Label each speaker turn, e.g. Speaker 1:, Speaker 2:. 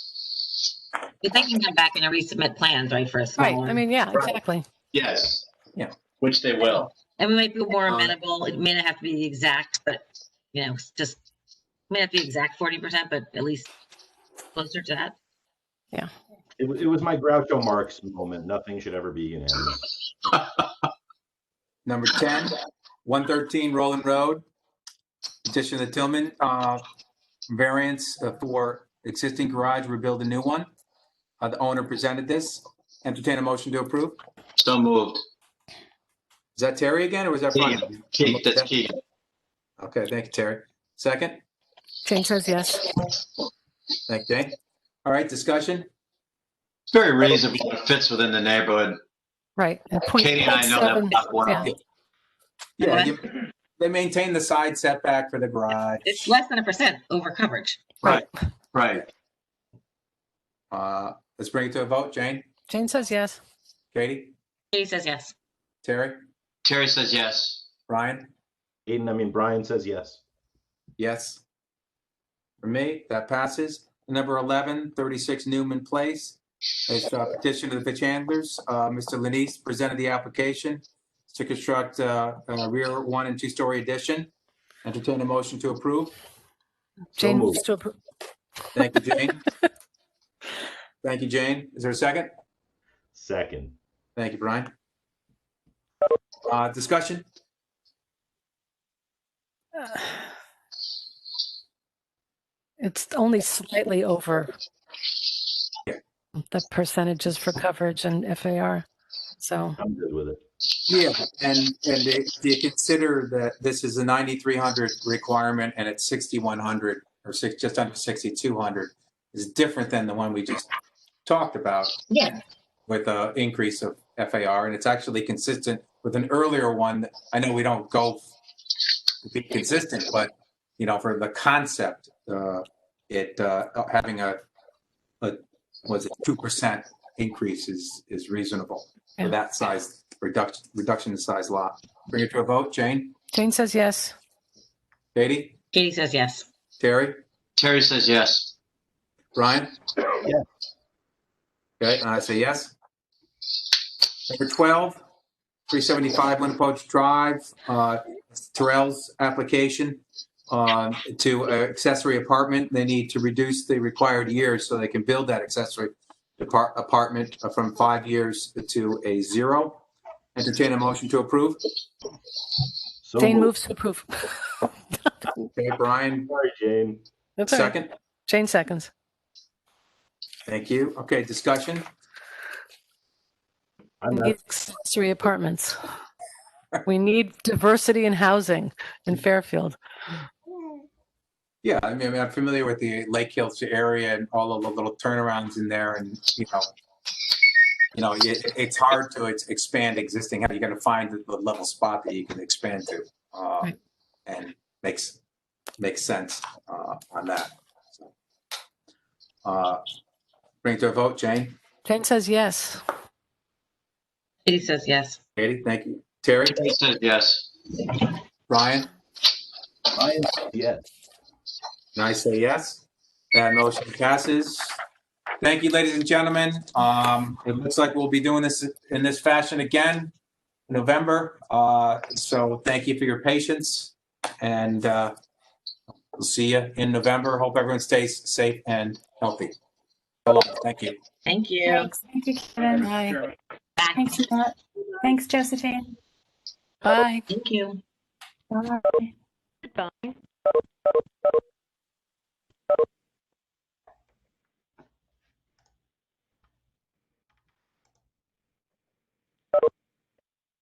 Speaker 1: But they can come back and resubmit plans, right, for a
Speaker 2: Right,
Speaker 1: smaller.
Speaker 2: I mean, yeah,
Speaker 3: Right.
Speaker 2: exactly.
Speaker 3: Yes.
Speaker 4: Yeah.
Speaker 3: Which they will.
Speaker 1: And we might be more
Speaker 3: Um,
Speaker 1: amenable, it may not have to be the exact, but, you know, it's just, may not be exact forty percent, but at least closer to that.
Speaker 5: It, wa- it was my Groucho Marx moment. Nothing should ever be unanimous.
Speaker 4: Number 10, 113 Roland Road. Petition of the Tillman, uh, variance uh, for existing garage, rebuild a new one. Uh, The owner presented this. Entertain a motion to approve.
Speaker 3: So moved.
Speaker 4: Is that Terry again, or was that? Brian?
Speaker 3: Keith, that's Keith.
Speaker 4: Okay, thank you, Terry. Second?
Speaker 2: Jane says yes.
Speaker 4: Thank you. Jane. All right, discussion?
Speaker 3: It's very reasonable. It fits within the neighborhood.
Speaker 2: Right. and point-
Speaker 3: Katie and I know that
Speaker 2: seven-
Speaker 3: block well.
Speaker 2: yeah.
Speaker 4: Yeah, you- they maintain the side setback for the garage.
Speaker 1: It's less than a percent over coverage.
Speaker 3: Right, right.
Speaker 4: Uh, Let's bring it to a vote. Jane,
Speaker 2: Jane says yes.
Speaker 4: Katie,
Speaker 1: Katie says yes.
Speaker 4: Terry,
Speaker 3: Terry says yes.
Speaker 4: Brian?
Speaker 5: Aiden, I mean, Brian says yes.
Speaker 4: Yes. For me, that passes. Number 11, 36 Newman Place. It's a petition to the pitch handlers. Uh, Mr. Lenise presented the application to construct uh, a rear one and two-story addition. Entertain a motion to approve.
Speaker 2: Jane
Speaker 5: moved.
Speaker 2: moves to approve.
Speaker 4: Thank you, Jane. Thank you, Jane. Is there a second?
Speaker 5: Second.
Speaker 4: Thank you, Brian. Uh, Discussion?
Speaker 2: uh, It's only slightly over the percentages for coverage and FAR. So,
Speaker 5: I'm good with it.
Speaker 4: Yeah, and, and do do you consider that this is a 9,300 requirement and it's 6,100 or six, just under 6,200 is different than the one we just talked about
Speaker 1: Yeah.
Speaker 4: with a increase of FAR, and it's actually consistent with an earlier one. that- I know we don't go f- to be consistent, but, you know, for the concept, uh, it, uh, having a, a, was it 2% increase is, is reasonable for
Speaker 2: Yeah.
Speaker 4: that size reduction, reduction in size lot. Bring it to a vote. Jane,
Speaker 2: Jane says yes.
Speaker 4: Katie,
Speaker 1: Katie says yes.
Speaker 4: Terry,
Speaker 3: Terry says yes.
Speaker 4: Brian? Okay, and I say yes. Number 12, 375 Winnipoche Drive, uh, Terrell's application uh, to uh, accessory apartment. They need to reduce the required years so they can build that accessory depart- apartment from five years to a zero. Entertain a motion to approve.
Speaker 5: So
Speaker 2: Jane
Speaker 5: moved.
Speaker 2: moves to approve.
Speaker 4: Okay, Brian,
Speaker 5: Sorry, Jane.
Speaker 2: That's all right.
Speaker 4: second.
Speaker 2: Jane seconds.
Speaker 4: Thank you. Okay, discussion.
Speaker 5: I'm
Speaker 2: We
Speaker 5: not,
Speaker 2: need accessory apartments. We need diversity in housing in Fairfield.
Speaker 4: Yeah, I mean, I mean, I'm familiar with the Lake Hills area and all of the little turnarounds in there and, you know, you know, it, it's hard to ex- expand existing, how you gonna find the- the level spot that you can expand to? uh,
Speaker 2: Right.
Speaker 4: And makes, makes sense uh, on that. So, uh, Bring it to a vote, Jane,
Speaker 2: Jane says yes.
Speaker 1: Katie says yes.
Speaker 4: Katie, thank you. Terry,
Speaker 3: Terry says yes.
Speaker 4: Brian,
Speaker 5: Brian says yes.
Speaker 4: and I say yes. That motion passes. Thank you, ladies and gentlemen. Um, it looks like we'll be doing this in this fashion again in November. Uh, so thank you for your patience and, uh, we'll see you in November. Hope everyone stays safe and healthy. So long. Thank you.
Speaker 1: Thank you.
Speaker 6: Thanks. Thank you, Kevin.
Speaker 2: Bye.
Speaker 1: Back.
Speaker 6: Thanks a lot. Thanks, Josephine.
Speaker 2: Bye.
Speaker 1: Thank you.
Speaker 6: Bye.
Speaker 7: Goodbye.